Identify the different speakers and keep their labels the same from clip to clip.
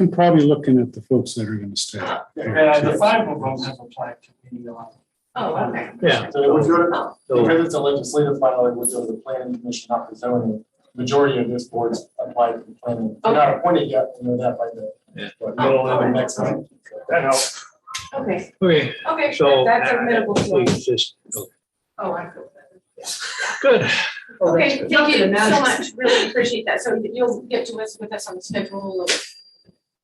Speaker 1: I'm probably looking at the folks that are gonna stay.
Speaker 2: Uh, the five of them have applied to be on.
Speaker 3: Oh, okay.
Speaker 4: Yeah,
Speaker 2: So it would go to,
Speaker 3: Oh,
Speaker 4: so,
Speaker 2: because it's a legislative file, it would go to the planning commission, not the zoning. Majority of this board's applied to the planning. They're not appointed yet, we know that by the.
Speaker 4: Yeah.
Speaker 2: But middle of the next month. That helps.
Speaker 3: okay,
Speaker 4: okay,
Speaker 3: okay,
Speaker 4: so.
Speaker 3: that's admirable
Speaker 4: uh,
Speaker 3: to
Speaker 4: we
Speaker 3: us.
Speaker 4: just- okay.
Speaker 3: Oh, I feel better.
Speaker 4: Good,
Speaker 3: Okay, thank you
Speaker 5: Now
Speaker 3: so much,
Speaker 5: it's-
Speaker 3: really appreciate that, so you'll get to us with us on the schedule of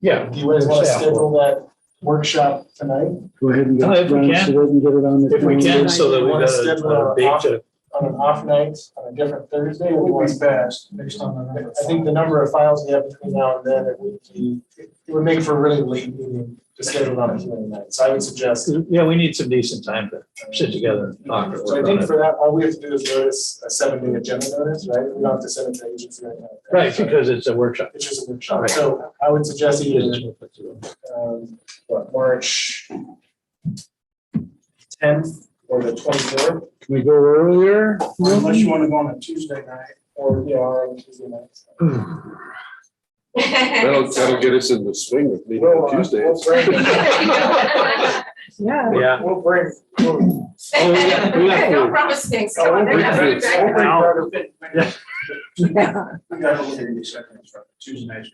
Speaker 4: yeah.
Speaker 2: Do you guys want to
Speaker 4: Staff will-
Speaker 2: schedule that workshop tonight
Speaker 1: Go ahead and get
Speaker 4: Oh, if
Speaker 1: it
Speaker 4: we
Speaker 1: done
Speaker 4: can.
Speaker 1: so they can get it on the.
Speaker 4: If we can, so that we
Speaker 2: Wanna
Speaker 4: got
Speaker 2: schedule
Speaker 4: a- a
Speaker 2: a
Speaker 4: date
Speaker 2: off-
Speaker 4: to,
Speaker 2: on an off night, on a different Thursday? It would be best, based on the. I think the number of files we have between now and then, it would be, it would make for a really late meeting to schedule on a hearing night. So I would suggest.
Speaker 4: yeah, we need some decent time to sit together and talk. and
Speaker 2: So I
Speaker 4: work on
Speaker 2: think
Speaker 4: it.
Speaker 2: for that, all we have to do is notice a seven day agenda notice, right? We don't have to send it to agency right now.
Speaker 4: Right, because it's a workshop.
Speaker 2: It's just a
Speaker 4: Right.
Speaker 2: workshop. So I would suggest either,
Speaker 4: Well,
Speaker 2: um, what, March tenth or the twenty-fourth,
Speaker 1: Can we go earlier?
Speaker 2: unless you want to go on a Tuesday night or, yeah, or on Tuesday night.
Speaker 6: That'll, that'll get us in the swing of meeting
Speaker 2: We'll,
Speaker 6: on
Speaker 2: uh,
Speaker 6: Tuesday.
Speaker 2: We'll bring,
Speaker 5: Yeah.
Speaker 4: Yeah.
Speaker 2: we'll bring, we'll
Speaker 4: got- we got
Speaker 3: Don't
Speaker 4: food.
Speaker 3: promise things.
Speaker 2: Oh,
Speaker 3: come on,
Speaker 2: we
Speaker 3: they're not
Speaker 6: got
Speaker 3: very
Speaker 6: food.
Speaker 3: good.
Speaker 2: We'll bring
Speaker 4: Yeah.
Speaker 2: We got a little bit of Tuesday night.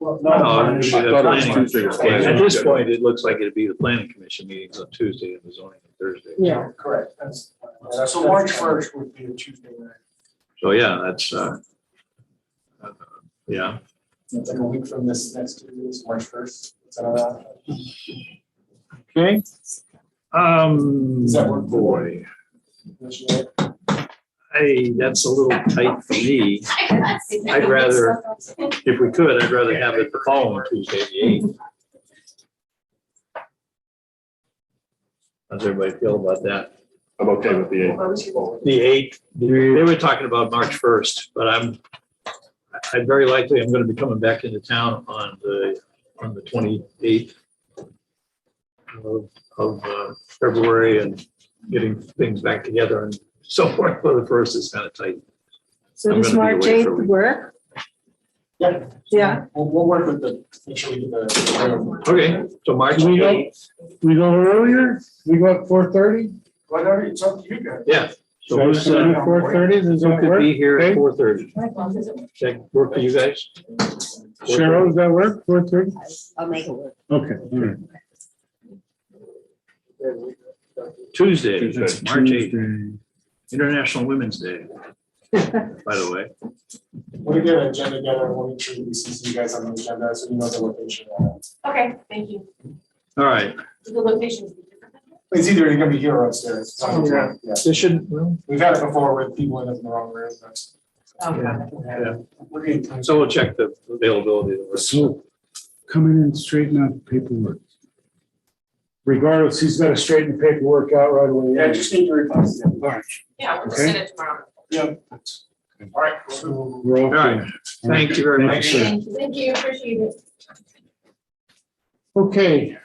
Speaker 2: Well,
Speaker 4: No, I mean,
Speaker 2: no.
Speaker 4: the
Speaker 6: thought it was
Speaker 4: planning-
Speaker 6: Tuesday was
Speaker 4: At
Speaker 6: planning.
Speaker 4: this point, it looks like it'd be the planning commission meetings on Tuesday and the zoning on Thursday.
Speaker 5: Yeah.
Speaker 2: Correct, that's. So March first would be a Tuesday night.
Speaker 4: So, yeah, that's, uh, uh, yeah,
Speaker 2: It's like a week from this next Tuesday, it's March first. Does
Speaker 4: okay. Um,
Speaker 2: Does that work?
Speaker 4: boy, I, that's a little tight for me. I'd rather, if we could, I'd rather have it the following Tuesday, the eighth. How's everybody feel about that?
Speaker 6: I'm okay with the eight.
Speaker 4: The eighth, they were talking about March first, but I'm, I- I very likely am gonna be coming back into town on the, on the twenty-eighth of, of uh, February and getting things back together and so forth, for the first is kind of tight.
Speaker 5: So
Speaker 4: I'm
Speaker 5: does
Speaker 4: gonna be
Speaker 5: March
Speaker 4: away
Speaker 5: eighth
Speaker 4: for a week.
Speaker 5: work?
Speaker 2: Yeah.
Speaker 5: Yeah.
Speaker 2: We'll, we'll work with the, make sure we get the.
Speaker 4: Okay, so March
Speaker 1: We go-
Speaker 4: eighth,
Speaker 1: We go earlier? We go at four thirty?
Speaker 2: Whatever, it's up to you guys.
Speaker 4: yeah. So who's, uh,
Speaker 1: Four thirty, does
Speaker 4: who
Speaker 1: that
Speaker 4: could
Speaker 1: work?
Speaker 4: be here
Speaker 1: Okay.
Speaker 4: at four thirty? That work for you guys?
Speaker 1: Cheryl, does that work? Four thirty?
Speaker 5: I'll make it work.
Speaker 1: Okay, all right.
Speaker 4: Tuesday,
Speaker 1: That's
Speaker 4: that's March eighth,
Speaker 1: Tuesday.
Speaker 4: International Women's Day, by the way.
Speaker 2: We'll get an agenda together, and we'll make sure we see you guys on the agenda, so you know the location.
Speaker 3: Okay, thank you.
Speaker 4: All right,
Speaker 3: The locations.
Speaker 2: It's either you're gonna be here or upstairs. It's on the-
Speaker 3: Yeah.
Speaker 2: Yeah,
Speaker 4: this shouldn't, well,
Speaker 2: we've had it before with people in the wrong room, but.
Speaker 4: Yeah.
Speaker 2: We're getting.
Speaker 4: so we'll check the availability. of the-
Speaker 1: So come in and straighten out the paperwork. Regardless, he's gotta straighten the paperwork out right away.
Speaker 2: Yeah, just need to replace it.
Speaker 1: All right.
Speaker 3: Yeah, we'll
Speaker 1: Okay.
Speaker 3: send it tomorrow.
Speaker 2: Yeah. All right. so-
Speaker 1: We're all
Speaker 4: All right,
Speaker 1: good.
Speaker 4: thank you very much.
Speaker 1: sir.
Speaker 3: Thank you. Thank you, appreciate it.
Speaker 1: Okay,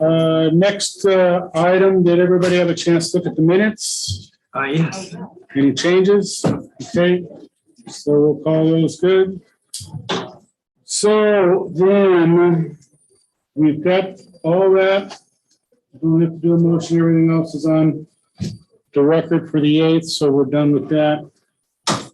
Speaker 1: uh, next uh, item, did everybody have a chance to look at the minutes?
Speaker 4: Uh, yes,
Speaker 1: Any changes? Okay, so we'll call those good. So then, we've got all that. We have to do a motion, everything else is on the record for the eighth, so we're done with that.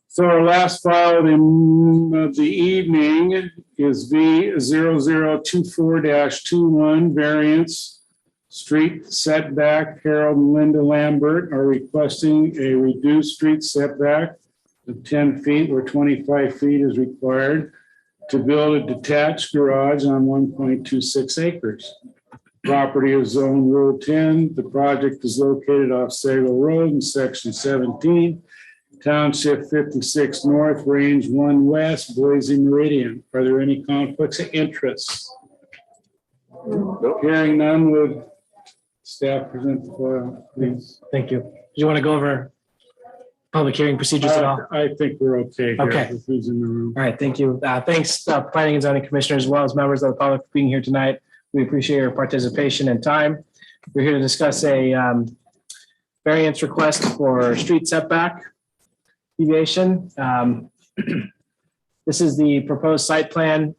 Speaker 1: So our last file of the- of the evening is V 24 two-one variance. Street setback, Harold and Linda Lambert are requesting a reduced street setback of ten feet where twenty-five feet is required to build a detached garage on one point two six acres. Property is zone Rule ten. The project is located off Sago Road in section seventeen, township fifty-six north, range one west, Boise Meridian. Are there any conflicts of interest? Hearing none, would Staff present the file, please.
Speaker 7: Thank you. Do you want to go over public hearing procedures at all? All
Speaker 1: I I think we're okay here.
Speaker 7: Okay.
Speaker 1: with Who's in the room?
Speaker 7: right, thank you. Uh, Thanks, uh, planning and zoning commissioners, as well as members of the public for being here tonight. We appreciate your participation and time. We're here to discuss a um, variance request for street setback deviation. Um, This is the proposed site plan